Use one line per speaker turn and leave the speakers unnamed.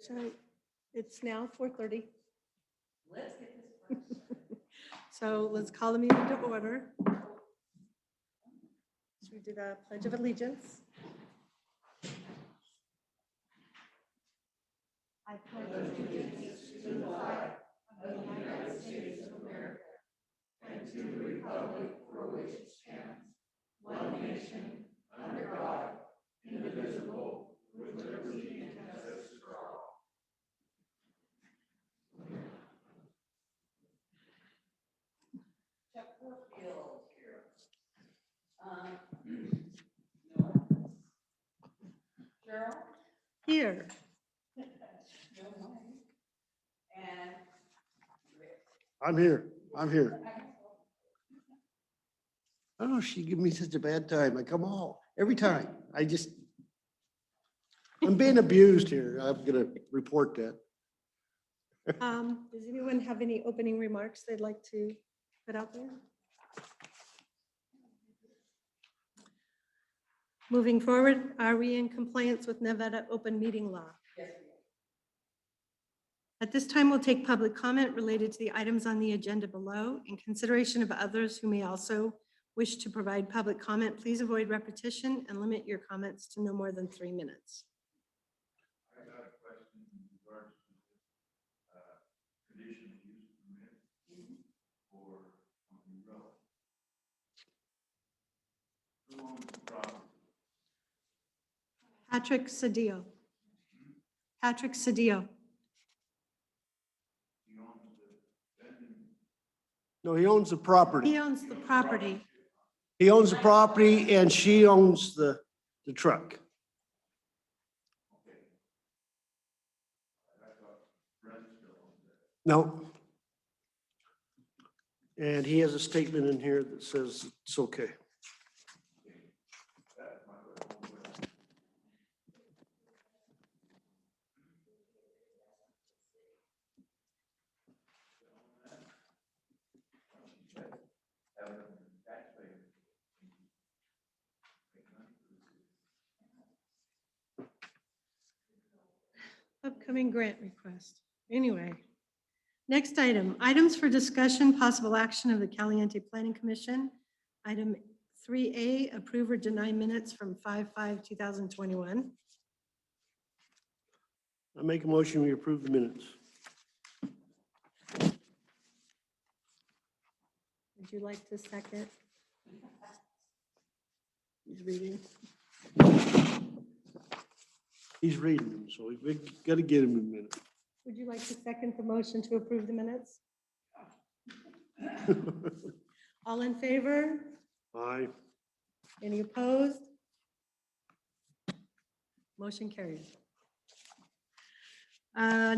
So it's now four thirty.
Let's get this first.
So let's call the meeting to order. Should we do the pledge of allegiance?
I pledge allegiance to the flag of the United States of America and to the republic for which it stands, one nation, under God, indivisible, with liberty and justice for all. Chuck Warfield here. Um, no. Gerald?
Here.
No money. And Rick.
I'm here. I'm here. Oh, she give me such a bad time. I come home every time. I just, I'm being abused here. I'm gonna report that.
Um, Does anyone have any opening remarks they'd like to put out there? Moving forward, are we in compliance with Nevada open meeting law?
Yes,
At this time, we'll take public comment related to the items on the agenda below. In consideration of others who may also wish to provide public comment, please avoid repetition and limit your comments to no more than three minutes.
I got a question in regards to this, uh, conditional use permit for Company Road. Who owns the property?
Patrick Sadio. Patrick Sadio.
He owns the, then,
No, he owns the property.
He owns the property.
He owns the property and she owns the, the truck.
okay. I thought Brent still owns that.
No. And he has a statement in here that says it's okay.
That's my question.
Upcoming grant request. Anyway. Next item, items for discussion, possible action of the Caliente Planning Commission. Item 3A, approve or deny minutes from 5/5/2021.
I make a motion, we approve the minutes.
Would you like to second? He's reading.
He's reading them, so we gotta get him in a minute.
Would you like to second the motion to approve the minutes? All in favor?
Aye.
Any opposed? Motion carried. Uh,